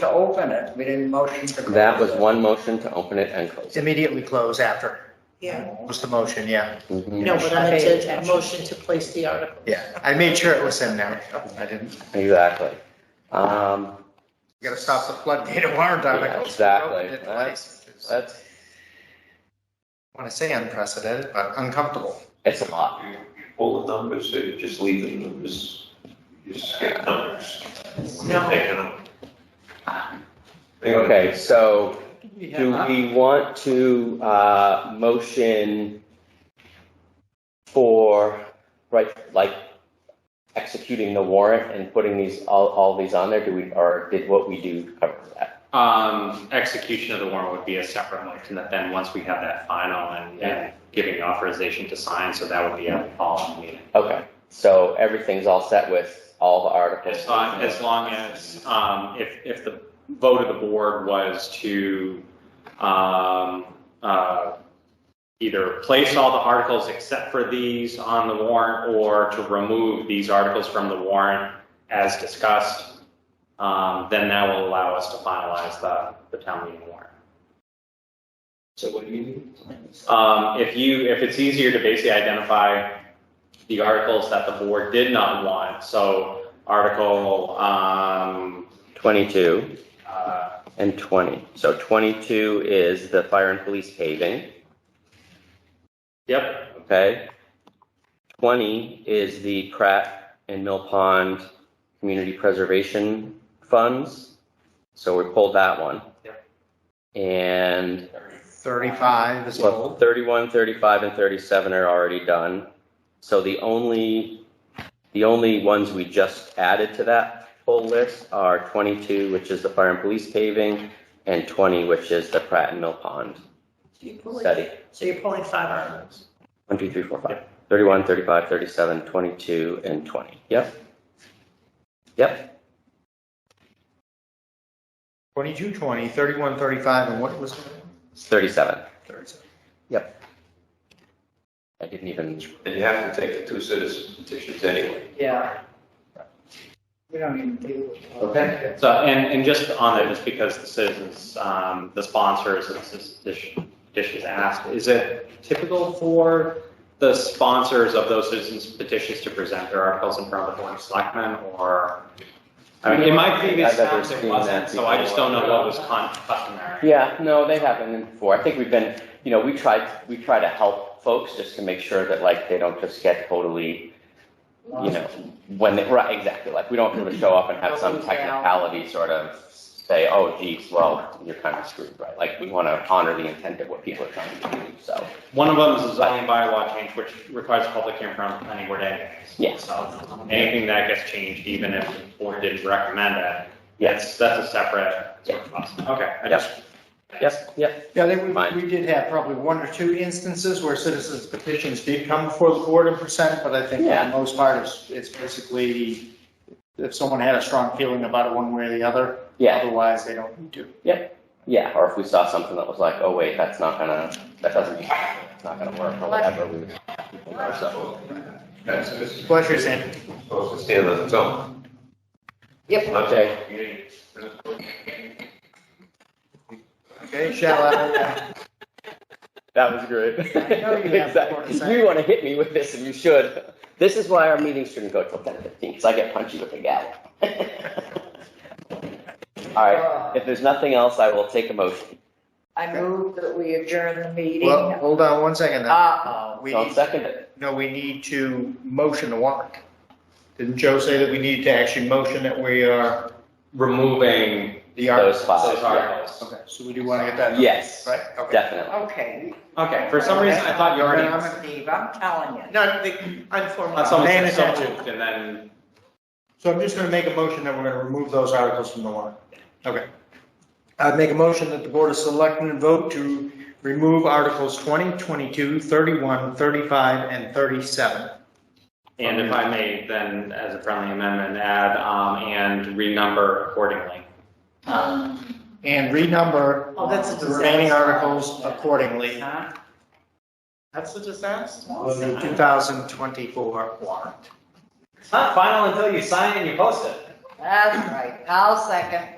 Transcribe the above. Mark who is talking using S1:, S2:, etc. S1: to open it, we didn't motion to. close
S2: That was
S1: it.
S2: one motion to open it and close it.
S3: Immediately close after
S4: Yeah,
S3: was the motion, yeah.
S2: Mhm.
S4: no, but I meant to, a motion to place the article.
S3: Yeah, I made sure it was in there. I didn't, you
S2: Exactly. Um,
S3: gotta stop the floodgate of warrant
S2: Yeah,
S3: articles.
S2: exactly.
S3: We opened it twice, which is- I
S2: that's,
S3: want to say unprecedented, but uncomfortable.
S2: it's a lot.
S5: All the numbers, so you just leave the numbers, you just get numbers.
S4: No,
S5: They're gonna- they're gonna-
S2: Okay, so do we want to, uh, motion for, right, like executing the warrant and putting these, all, all these on there? Do we, or did what we do cover that?
S6: Um, execution of the warrant would be a separate motion that then, once we have that final and, and giving authorization to sign, so that would be a following meeting.
S2: Okay, so everything's all set with all the articles?
S6: As long, as long as, um, if, if the vote of the board was to, um, uh, either place all the articles except for these on the warrant or to remove these articles from the warrant as discussed, um, then that will allow us to finalize the, the town meeting warrant.
S5: So what do you need?
S6: Um, if you, if it's easier to basically identify the articles that the board did not want, so article, um,
S2: Twenty-two.
S6: uh,
S2: And 20. So 22 is the fire and police paving,
S6: yep,
S2: okay? 20 is the Pratt and Mill Pond Community Preservation Funds. So we pulled that one. And
S3: Thirty-five is
S2: well,
S3: old.
S2: 31, 35, and 37 are already done. So the only, the only ones we just added to that full list are 22, which is the fire and police paving, and 20, which is the Pratt and Mill Pond
S4: you're pulling-
S2: study.
S4: so you're pulling five articles.
S2: One, two, three, four, five. Thirty-one, thirty-five, thirty-seven, twenty-two, and twenty. Yep. Yep.
S3: Twenty-two, twenty, thirty-one, thirty-five, and what was it?
S2: It's thirty-seven.
S3: Thirty-seven.
S2: I didn't even.
S5: And you have to take the two citizen petitions anyway.
S1: Yeah. We don't even deal with. all
S2: Okay.
S1: that.
S6: so, and, and just on that, just because the citizens, um, the sponsors of this dish, dish is asked, is it typical for the sponsors of those citizens petitions to present their articles in front of the board of selectmen, or? I mean, in my previous
S2: I've never
S6: towns, it
S2: seen
S6: wasn't,
S2: that
S6: so I just don't know
S2: before.
S6: what was con- customary.
S2: Yeah, no, they haven't before. I think we've been, you know, we tried, we try to help folks just to make sure that like they don't just get totally, you know, when they, right, exactly. Like we don't want to show up and have some technicality sort of say, oh geez, well, you're kind of screwed, right? Like we want to honor the intent of what people are trying to do, so.
S6: One of them is a zoning bylaw change, which requires a public hearing from the planning board anyways.
S2: Yes.
S6: So anything that gets changed, even if the board didn't recommend it,
S2: Yes.
S6: that's, that's a separate sort of process. Okay, I
S2: Yep.
S6: just.
S2: Yes, yep,
S3: Yeah, they, we,
S2: Fine.
S3: we did have probably one or two instances where citizens petitions did come before the board and present, but I think for
S2: Yeah.
S3: the most part, it's, it's basically if someone had a strong feeling about it one way or the other,
S2: yeah.
S3: otherwise they don't need to.
S2: Yeah, or if we saw something that was like, oh wait, that's not gonna, that doesn't, it's not gonna work or whatever, we would have people know, so.
S5: That's, it's
S3: Pleasure, Sandy.
S5: supposed to stand on its own.
S1: Yep.
S2: Okay,
S3: Okay, shall I?
S2: that was great.
S3: I know you have more to
S2: Exactly.
S3: say.
S2: You wanna hit me with this and you should. This is why our meetings shouldn't go till ten fifteen, because I get punchy with the gal. Alright,
S1: Uh,
S2: if there's nothing else, I will take a motion.
S1: I move that we adjourn the meeting.
S3: Well, hold on one second.
S1: Uh,
S3: then.
S1: Uh-oh.
S3: We,
S2: Don't second it.
S3: no, we need to motion the warrant. Didn't Joe say that we need to actually motion that we are
S6: Removing
S3: the
S2: Those
S3: articles?
S2: five,
S6: those
S2: yeah.
S6: articles.
S3: Okay, so we do want to get that.
S2: Yes,
S3: Right? Okay.
S2: definitely.
S1: Okay.
S6: Okay, for some reason, I thought you already,
S1: I'm a thief, I'm telling you.
S3: No, the-
S4: I'm for
S6: I saw
S3: Man
S6: someone said so
S3: attention.
S6: moved and then,
S3: so I'm just going to make a motion that we're going to remove those articles from the warrant. Okay. I'd make a motion that the Board of Selectmen vote to remove Articles 20, 22, 31, 35, and 37.
S6: and if I may, then as a friendly amendment, add, um, and renumber accordingly.
S3: And renumber
S4: Oh, that's a
S3: the remaining
S4: disaster.
S3: articles accordingly
S4: Huh? That's a disaster.
S3: on the 2024 warrant.
S6: It's not final until you sign and you post it.
S1: That's right, I'll second.